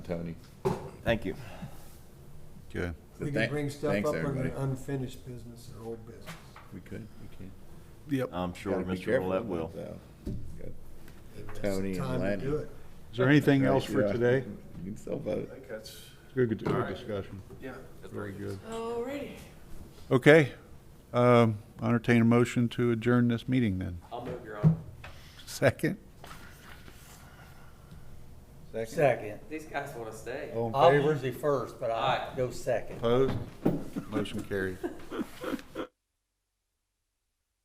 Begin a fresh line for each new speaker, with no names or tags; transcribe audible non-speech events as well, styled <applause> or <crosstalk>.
Tony.
Thank you.
Okay,
We can
Thank-
bring stuff
thanks,
up on
everybody.
the unfinished business and old business.
We could, we can.
yep.
I'm sure
Gotta be
Mr.
careful
Roulette
about
will.
that.
That's the
Tony and
time to
Lenny.
do it.
Is there anything else for
Yeah.
today?
You can still vote.
I think that's,
Good, good discussion.
yeah. that's
Very good.
Alrighty.
Okay, um, entertain a motion to adjourn this meeting then. <laughs>
I'll move, Your Honor.
Second?
Second.
These guys want to stay.
All in
I'm
favor?
usually first, but I go second.
Opposed? Motion carried.